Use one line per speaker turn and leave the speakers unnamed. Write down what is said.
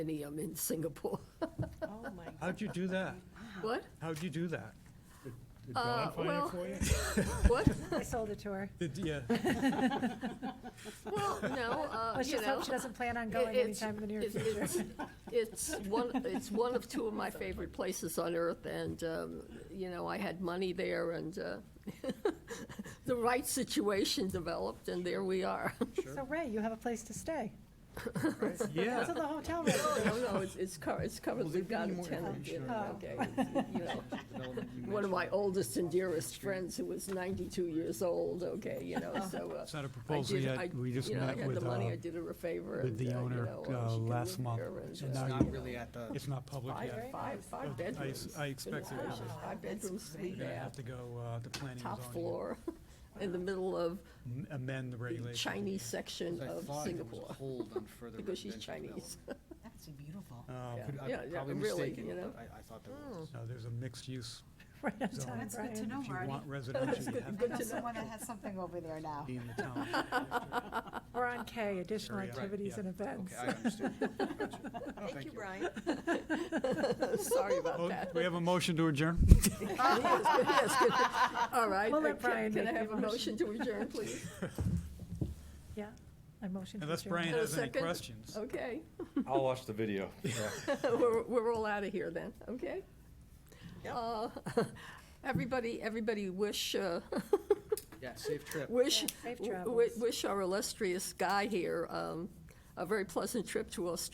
any um, in Singapore.
Oh, my.
How'd you do that?
What?
How'd you do that?
Did Dawn find
Uh, well-
it for you?
What?
I sold it to her.
Did, yeah,
Well, no, uh,
Let's
you
just
know.
hope she doesn't plan on
it-
going
it's-
anytime in the near
it-
future.
it's- It's one, it's one of two of my favorite places on earth, and, um, you know, I had money there and uh, the right situation developed, and there we are.
So Ray, you have a place to stay. Go to
yeah.
the hotel room.
No, Oh, no, it's, it's cur- it's currently got a tenant in,
Oh.
okay. you know. One of my oldest and dearest friends who was ninety-two years old, okay, you know, so. uh,
It's not a
I
proposal
did-
yet.
I-
We just
you know, I
met
had
with,
the money,
uh,
I did her a favor.
with the
and, uh, you
owner,
know, uh,
uh,
she can
last
live
month.
there and,
It's
uh,
not
you know,
really at the,
It's not public
Five,
yet.
five, five
I s-
bedrooms.
I expected it
Wow,
was.
Five bedrooms, three
You're gonna have
bath,
to go, uh, the planning
top
is on you.
floor, in the middle of
M- Amend the
the
regulation.
Chinese section
I
of
thought there was a
Singapore,
hold on further
because she's
residential
Chinese.
That's beautiful.
Oh,
Yeah.
development. Could- I'm
yeah,
probably
really,
mistaken,
you
but
know.
I, I thought there was.
No, there's a mixed use.
Right on
So-
time,
That's good to
Brian.
know,
If you
Marty.
want residential, you have
I
to
know someone that has something over there now.
be in the town.
We're on K, additional
Area, right,
activities
yeah.
and events.
Okay, I understand. Gotcha. Oh,
Thank you, Brian.
Sorry about
Oh,
that.
We have a motion to adjourn?
Yes, yes, All right.
We'll let
uh, can-
Brian
Can I
make the
have a motion
motion.
to adjourn, please?
Yeah, I motion to
Unless
adjourn.
Brian
And a
has any
second?
questions.
Okay,
I'll watch the video.
we're, we're all out of here then, okay?
Yep.
Uh, Everybody, everybody wish, uh,
Yeah, safe trip.
wish,
Yeah, safe
w- w-
travels.
wish our illustrious guy here um, a very pleasant trip to Australia.